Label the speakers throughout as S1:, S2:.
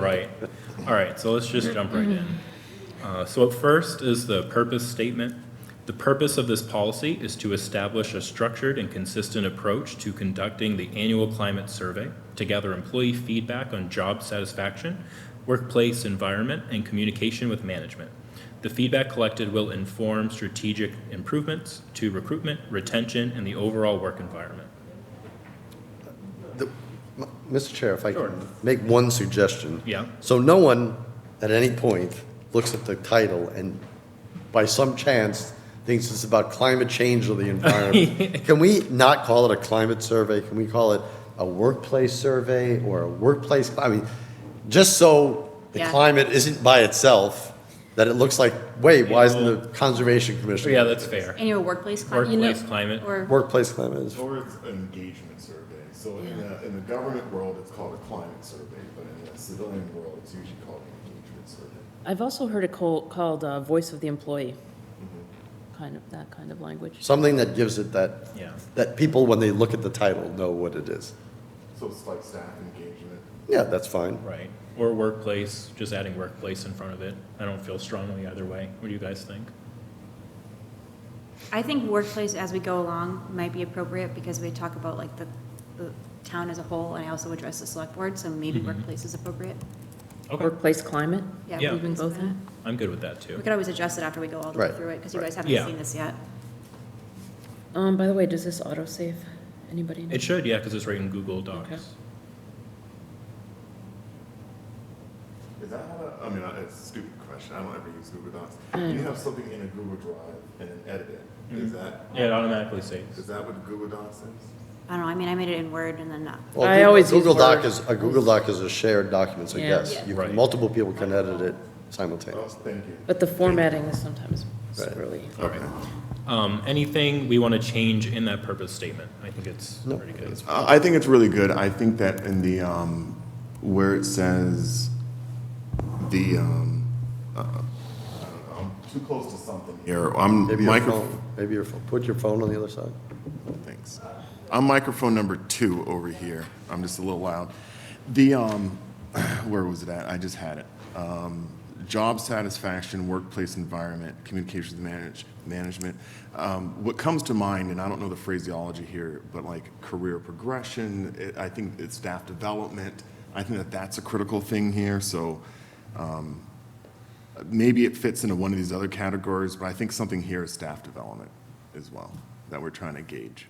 S1: Right. All right, so let's just jump right in. Uh, So at first is the purpose statement. The purpose of this policy is to establish a structured and consistent approach to conducting the annual climate survey to gather employee feedback on job satisfaction, workplace environment, and communication with management. The feedback collected will inform strategic improvements to recruitment, retention, and the overall work environment.
S2: The- m- Mr. Chair, if I
S1: Sure.
S2: can make one suggestion.
S1: Yeah.
S2: So no one at any point looks at the title and by some chance thinks it's about climate change or the environment. Can we not call it a climate survey? Can we call it a workplace survey or a workplace, I mean, just so the
S3: Yeah.
S2: climate isn't by itself, that it looks like, wait, why isn't the Conservation
S1: So
S2: Commission?
S1: yeah, that's fair.
S3: Annual workplace climate.
S1: Workplace climate.
S3: Or,
S2: Workplace climate is,
S4: Or it's an engagement survey. So in
S3: Yeah.
S4: the, in the government world, it's called a climate survey, but in the civilian world, it's usually called an engagement survey.
S5: I've also heard it called, called uh, voice of the employee, kind of, that kind of language.
S2: something that gives it that,
S1: Yeah.
S2: that people, when they look at the title, know what it is.
S4: So it's like staff engagement.
S2: Yeah, that's fine.
S1: Right, or workplace, just adding workplace in front of it. I don't feel strongly either way. What do you guys think?
S3: I think workplace as we go along might be appropriate because we talk about like the, the town as a whole and I also address the select board, so maybe
S1: Mm-hmm.
S3: workplace is appropriate.
S1: Okay,
S5: Workplace climate?
S1: Yeah.
S5: Leaving both in?
S1: I'm good with that
S3: We
S1: too.
S3: could always adjust it after we go all the way
S2: Right.
S3: through it because you guys haven't
S1: Yeah.
S3: seen this yet.
S5: Um, by the way, does this autosave? Anybody know?
S1: It should, yeah, because it's right in Google Docs.
S4: Is that how, to- I mean, I- it's a stupid question. I don't ever use Google Docs.
S5: Mm.
S4: You have something in a Google Drive and then edit it.
S1: Hmm.
S4: Is that,
S1: Yeah, it automatically saves.
S4: is that what Google Docs is?
S3: I don't know, I mean, I made it in Word and then not.
S2: Well,
S5: I
S2: Google-
S5: always use
S2: Google Doc
S5: Word.
S2: is, a Google Doc is a shared document, so
S5: Yeah.
S2: yes,
S3: Yeah.
S2: you
S1: Right.
S2: can, multiple people can edit it
S4: Oh,
S2: simultaneously.
S4: thank you.
S5: But the formatting is sometimes
S2: Right.
S5: really.
S1: All right. Um, anything we want to change in that purpose statement? I think it's
S2: No,
S1: pretty good.
S4: Uh, I think it's really good. I think that in the, um, where it says the, um, uh, I don't know, I'm too close to something here. I'm
S2: Maybe your
S4: micro,
S2: phone, maybe your phone, put your phone on the other side.
S4: thanks. I'm microphone number two over here. I'm just a little loud. The, um, where was it at? I just had it. Um, job satisfaction, workplace environment, communications manage, management. Um, what comes to mind, and I don't know the phraseology here, but like career progression, it, I think it's staff development. I think that that's a critical thing here. So, um, maybe it fits into one of these other categories, but I think something here is staff development as well that we're trying to gauge.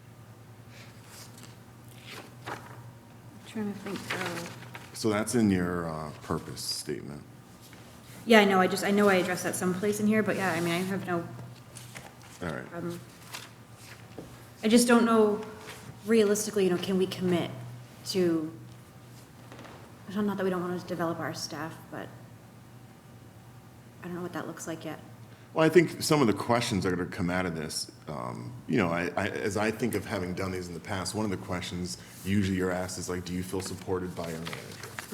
S3: Trying to think. oh.
S4: So that's in your uh, purpose statement.
S3: Yeah, I know, I just, I know I addressed that someplace in here, but yeah, I mean, I have no
S4: All right.
S3: problem. I just don't know realistically, you know, can we commit to, I don't- not that we don't want to develop our staff, but I don't know what that looks like yet.
S4: Well, I think some of the questions that are going to come out of this, um, you know, I, I, as I think of having done these in the past, one of the questions usually you're asked is like, do you feel supported by your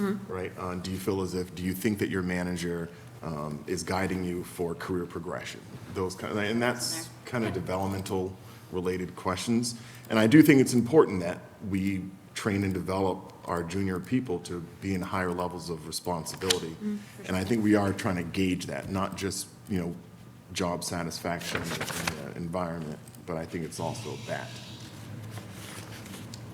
S4: manager? Right? Uh, do you feel as if, do you think that your manager um, is guiding you for career progression? Those kind, of, and that's kind of developmental related questions. And I do think it's important that we train and develop our junior people to be in higher levels of responsibility. And I think we are trying to gauge that, not just, you know, job satisfaction and the environment, but I think it's also that.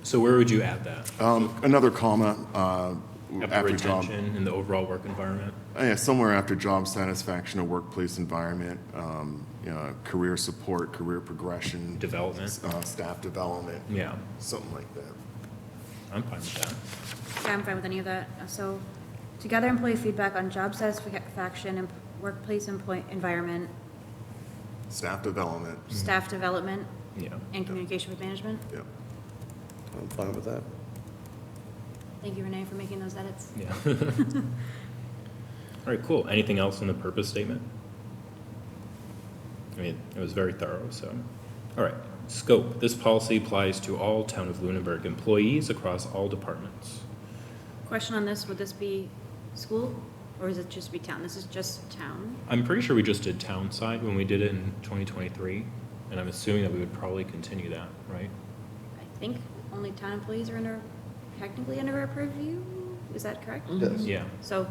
S1: So where would you add that?
S4: Um, Another comma, uh,
S1: After
S4: after job. uh,
S1: retention and the overall work environment?
S4: Yeah, somewhere after job satisfaction, or workplace environment, um, you know, career support, career progression.
S1: Development.
S4: uh, Staff development,
S1: Yeah,
S4: something like that.
S1: I'm fine with that.
S3: Yeah, I'm fine with any of that. So to gather employee feedback on job satisfaction, and workplace employee environment,
S4: Staff development,
S1: Mm.
S3: staff development,
S1: Yeah.
S3: and communication with management.
S4: yeah.
S2: I'm fine with that.
S5: Mm-hmm.
S3: Thank you, Renee, for making those edits.
S1: Yeah. All right, cool. Anything else in the purpose statement? I mean, it was very thorough, so. All right, scope. This policy applies to all Town of Lunenburg employees across all departments.
S3: Question on this, would this be school or is it just be town? This is just town?
S1: I'm pretty sure we just did town side when we did it in 2023, and I'm assuming that we would probably continue that, right?
S3: I think only town employees are under, technically under our purview. is that correct?
S2: Yes. Mm-hmm.
S1: Yeah.
S3: So